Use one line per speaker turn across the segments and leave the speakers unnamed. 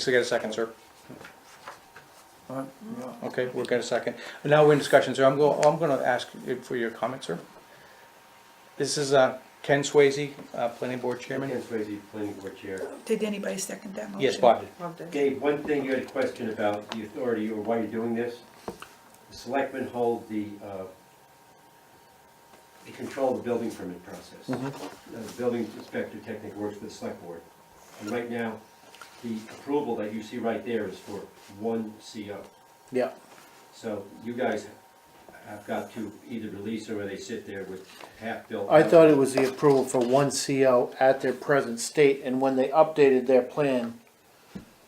So get a second, sir.
All right, yeah.
Okay, we'll get a second. Now we're in discussion, sir. I'm go, I'm gonna ask you for your comment, sir. This is, uh, Ken Swayze, uh, planning board chairman.
Ken Swayze, planning board chair.
Did anybody second that motion?
Yes, Bob.
Dave, one thing you had a question about the authority or why you're doing this. The selectmen hold the, uh, they control the building permit process.
Mm-hmm.
Now, The building inspector technically works for the select board. And right now, the approval that you see right there is for one CO.
Yeah.
So you guys have got to either release or they sit there with half-built.
I thought it was the approval for one CO at their present state, and when they updated their plan,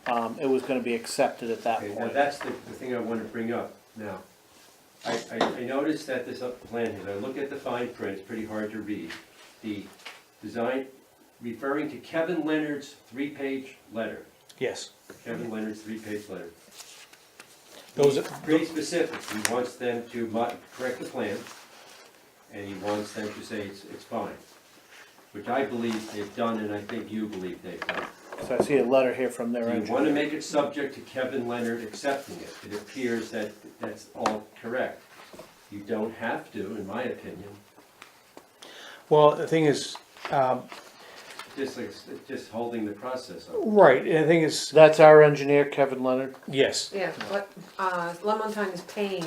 um, it was gonna be accepted at that
Okay, now
point.
that's the, the thing I wanna bring up now. I, I, I noticed that this up plan, here. I look at the fine print, it's pretty hard to read. The design, referring to Kevin Leonard's three-page letter,
Yes.
Kevin Leonard's three-page letter.
Those, are-
Pretty specific, he wants them to mo- correct the plan, and he wants them to say it's, it's fine. Which I believe they've done, and I think you believe they've done.
So I see a letter here from their
Do you want
engineer.
to make it subject to Kevin Leonard accepting it? It appears that that's all correct. You don't have to, in my opinion,
well, the thing is, um,
just, like- just holding the process up.
right, and the thing is,
That's our engineer, Kevin Leonard,
yes,
Yeah, but, uh, La Montagne is paying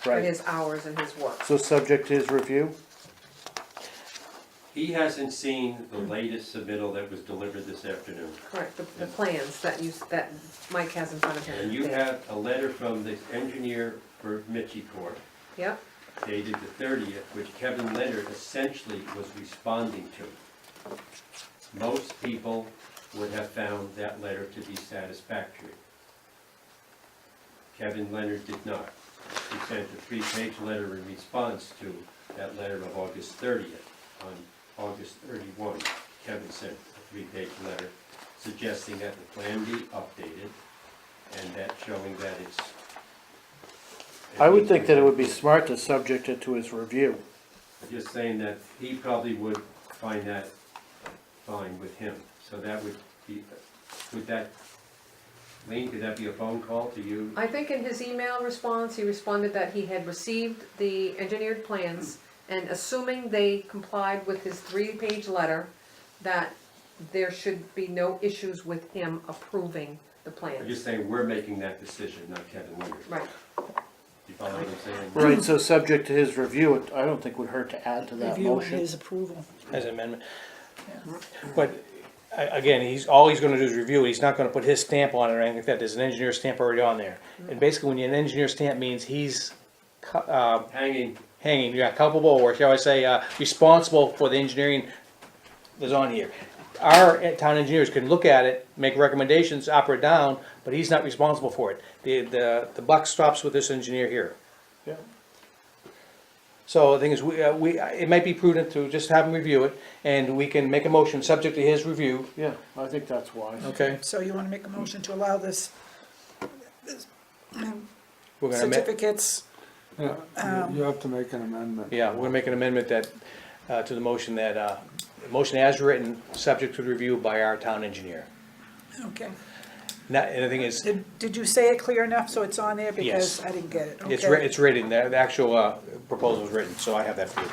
for
right?
his hours and his work.
So subject to his review?
He hasn't seen the latest submittal that was delivered this afternoon.
Correct, the, the plans that you, s- that Mike has in front of him.
And you have a letter from the engineer for Mitchie Corp.
Yep,
dated the thirtieth, which Kevin Leonard essentially was responding to. Most people would have found that letter to be satisfactory. Kevin Leonard did not. He sent a three-page letter in response to that letter of August thirtieth. On August thirty-one, Kevin sent a three-page letter suggesting that the plan be updated and that showing that it's.
I would think that it would be smart to subject it to his review.
I'm Just saying that he probably would find that fine with him, so that would be, would that, Lean, could that be a phone call to you?
I think in his email response, he responded that he had received the engineered plans, and assuming they complied with his three-page letter, that there should be no issues with him approving the
I'm
plans.
just saying, we're making that decision, not Kevin Leonard.
Right,
You follow what I'm saying?
Right, so subject to his review, it- I don't think would hurt to add to that
Review and
motion.
his approval.
as an amendment. But, a- again, he's, all he's gonna do is review, it. he's not gonna put his stamp on it or anything like that, there's an engineer stamp already on there. And basically, when you, an engineer stamp means he's, cu- uh,
Hanging,
hanging, yeah, culpable, or shall I say, uh, responsible for the engineering that's on here. Our uh, town engineers can look at it, make recommendations up or down, but he's not responsible for it. The, the, the buck stops with this engineer here.
Yeah.
So the thing is, we, uh, we, it might be prudent to just have him review it, and we can make a motion subject to his review,
Yeah, I think that's wise.
okay?
So you wanna make a motion to allow this
We're gonna ma-
certificates?
Yeah, you- you have to make an amendment.
Yeah, we're gonna make an amendment that, uh, to the motion that, uh, the motion as written, subject to review by our town engineer.
Okay.
Not, and the thing is,
Did, did you say it clear enough so it's on there? Because
Yes.
I didn't get it.
It's,
Okay.
wri- it's written, the, the actual, uh, proposal is written, so I have that for you.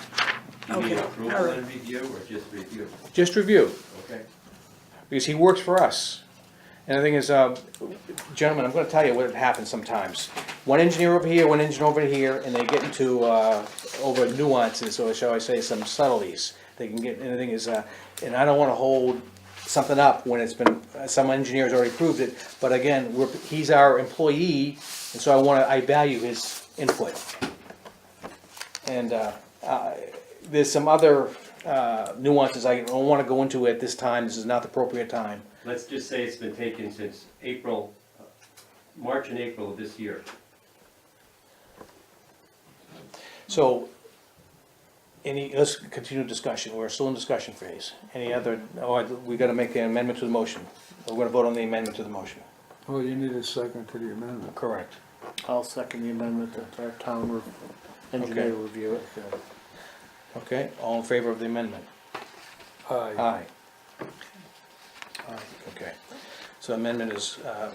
do you need
Okay,
approval
alright.
and review, or just review,
Just review,
okay?
because he works for us. And the thing is, uh, gentlemen, I'm gonna tell you what happens sometimes. One engineer over here, one engineer over here, and they get into, uh, over nuances, or shall I say, some subtleties. They can get, and the thing is, uh, and I don't wanna hold something up when it's been, uh, some engineer's already proved it, but again, we're, he's our employee, and so I wanna, I value his input. And, uh, there's some other uh, nuances I don't want to go into at this time, this is not the appropriate time.
Let's just say it's been taken since April, uh, March and April of this year.
So, any, let's continue discussion, we're still in discussion phase. Any other, oh, we gotta make an amendment to the motion. We're gonna vote on the amendment to the motion.
Well, Oh, you need a second to the amendment.
Correct.
I'll second the amendment that our town re- engineer review it.
Okay, all in favor of the amendment?
Aye.
Aye. Aye, okay. So amendment is, uh,